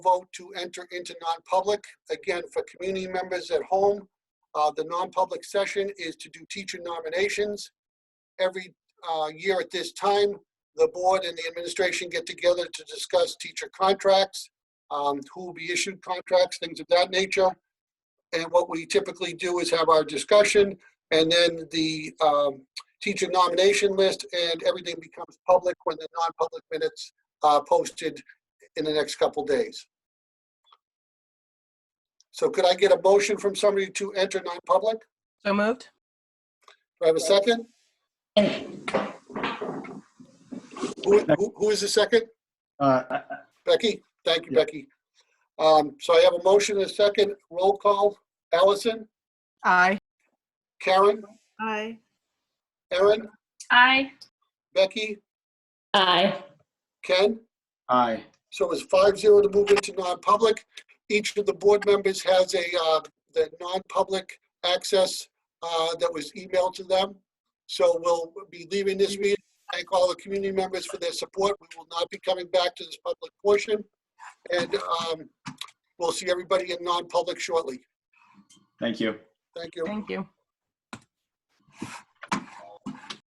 vote to enter into non-public. Again, for community members at home, uh, the non-public session is to do teacher nominations. Every, uh, year at this time, the board and the administration get together to discuss teacher contracts, um, who will be issued contracts, things of that nature. And what we typically do is have our discussion and then the, um, teacher nomination list and everything becomes public when the non-public minutes are posted in the next couple days. So could I get a motion from somebody to enter non-public? So moved? Do I have a second? Who, who- who is the second? Uh, I- I- Becky? Thank you, Yeah. Becky. Um, so I have a motion and a second. Roll call. Allison, Aye. Karen, Aye. Erin, Aye. Becky, Aye. Ken? Aye. So it's five zero to move into non-public. Each of the board members has a, uh, the non-public access, uh, that was emailed to them. So we'll be leaving this meeting. Thank all the community members for their support. We will not be coming back to this public portion. And, um, we'll see everybody in non-public shortly. Thank you. Thank you. Thank you.